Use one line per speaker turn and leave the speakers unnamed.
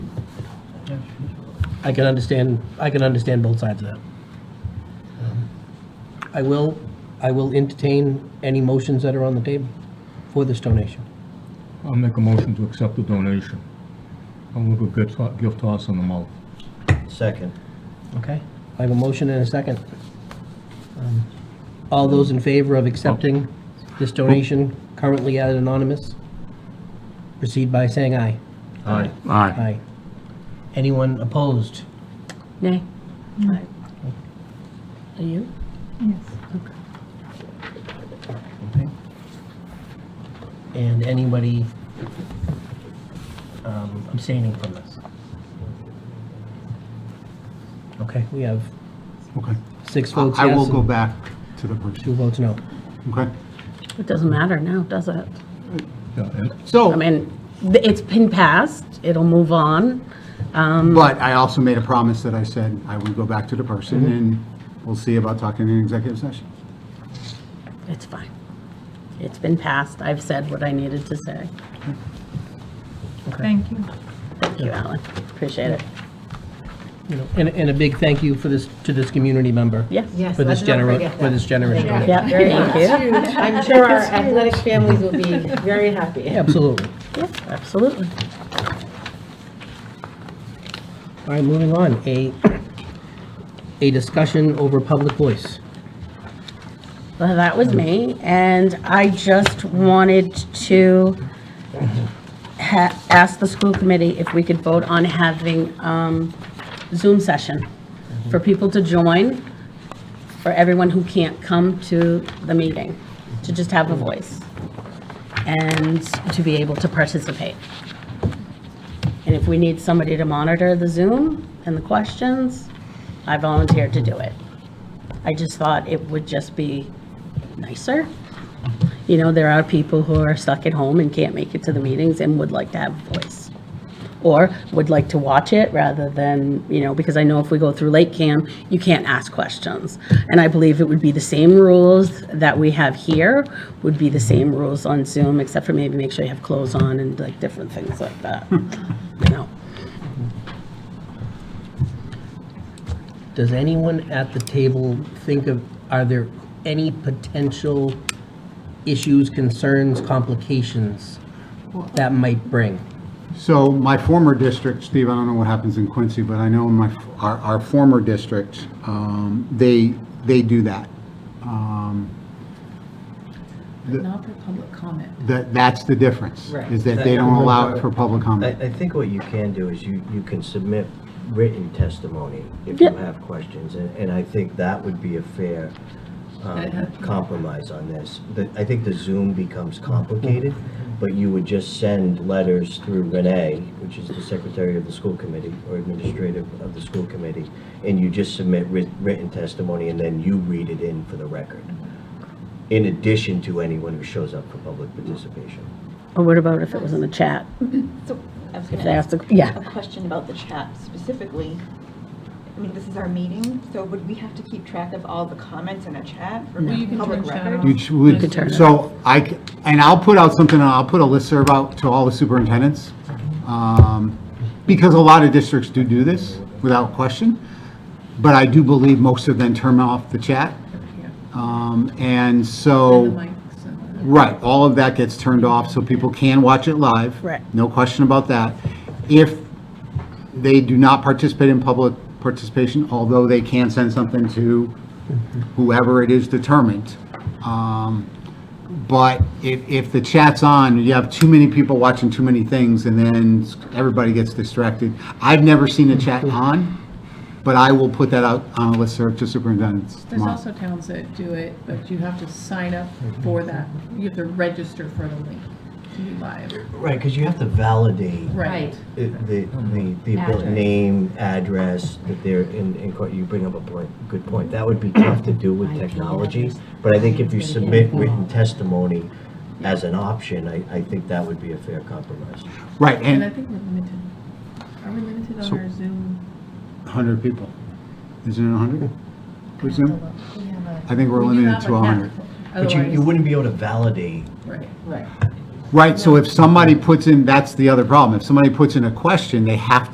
Judge.
I can understand, I can understand both sides of that. Um, I will, I will entertain any motions that are on the table for this donation.
I'll make a motion to accept the donation. I'll look a good to- gift horse in the mouth.
Second.
Okay? I have a motion and a second. Um, All those in favor of accepting this donation currently at anonymous, proceed by saying aye.
Aye.
Aye.
Aye. Anyone opposed?
Nay. Aye. Are you?
Okay. And anybody um, abstaining from this? Okay, we have
Okay.
six votes
I
yes.
will go
and
back to the person,
Two votes no.
okay?
It doesn't matter now, does it?
Yeah, and
I
So,
mean, th- it's been passed, it'll move on.
but I also made a promise that I said I would go back to the person,
Mm-hmm.
and we'll see about talking in executive session.
It's fine. It's been passed. I've said what I needed to say.
Okay.
Thank you.
Thank you, Alan. Appreciate it.
You know, And, and a big thank you for this, to this community member.
Yes.
Yes,
For this
let's not
generous,
forget
for
that.
this generous donation.
Yeah,
Very
thank you.
huge. I'm sure our athletic families will be very happy.
Absolutely.
Yes, absolutely.
All right, moving on. A, a discussion over public voice.
Well, that was me, and I just wanted to ha- ask the school committee if we could vote on having um, Zoom session for people to join, for everyone who can't come to the meeting, to just have a voice and to be able to participate. And if we need somebody to monitor the Zoom and the questions, I volunteered to do it. I just thought it would just be nicer. You know, there are people who are stuck at home and can't make it to the meetings and would like to have a voice. Or would like to watch it rather than, you know, because I know if we go through late cam, you can't ask questions. And I believe it would be the same rules that we have here, would be the same rules on Zoom, except for maybe make sure you have clothes on and like different things like that, you know.
Does anyone at the table think of, are there any potential issues, concerns, complications that might bring?
So my former district, Steve, I don't know what happens in Quincy, but I know in my, our, our former district, um, they, they do that. Um,
Not for public comment.
That, that's the difference.
Right.
Is that they don't allow it for public
I,
comment.
I think what you can do is you, you can submit written testimony if you
Yeah.
have questions, and, and I think that would be a fair um, compromise on this. The- I think the Zoom becomes complicated, but you would just send letters through Renee, which is the secretary of the school committee, or administrative of the school committee, and you just submit writ- written testimony, and then you read it in for the record, in addition to anyone who shows up for public participation.
Or what about if it was in the chat?
So I was
If
going
they
to
ask
ask
the, yeah.
a question about the chat specifically. I mean, this is our meeting, so would we have to keep track of all the comments in a chat for
you can
public
turn chat
record?
off.
You ch- would-
You could turn it
So I, c- and I'll put out something, I'll put a listserv out to all the superintendents, um, because a lot of districts do do this, without question, but I do believe most of them turn off the chat. Um, And so. Right, all of that gets turned off, so people can watch it live.
Right.
No question about that. If they do not participate in public participation, although they can send something to whoever it is determined. um, But if, if the chat's on, you have too many people watching too many things, and then everybody gets distracted. I've never seen a chat on, but I will put that out on a listserv to superintendents
There's
tomorrow.
also towns that do it, but you have to sign up for that. You have to register for the link to be live.
Right, because you have to validate
Right.
the, the, the the abil- name, address, that they're in, in, court. you bring up a point, good point. That would be tough to do with technology, but I think if you submit written testimony as an option, I, I think that would be a fair compromise.
Right,
And I
and
think we're limited. Are we limited on
So-
our Zoom?
100 people. Isn't it 100? Who's in?
We have a-
I think we're
We do
limited
have
to
a
100.
cap.
But you, you
Otherwise-
wouldn't be able to validate,
Right.
Right.
Right, so if somebody puts in, that's the other problem. If somebody puts in a question, they have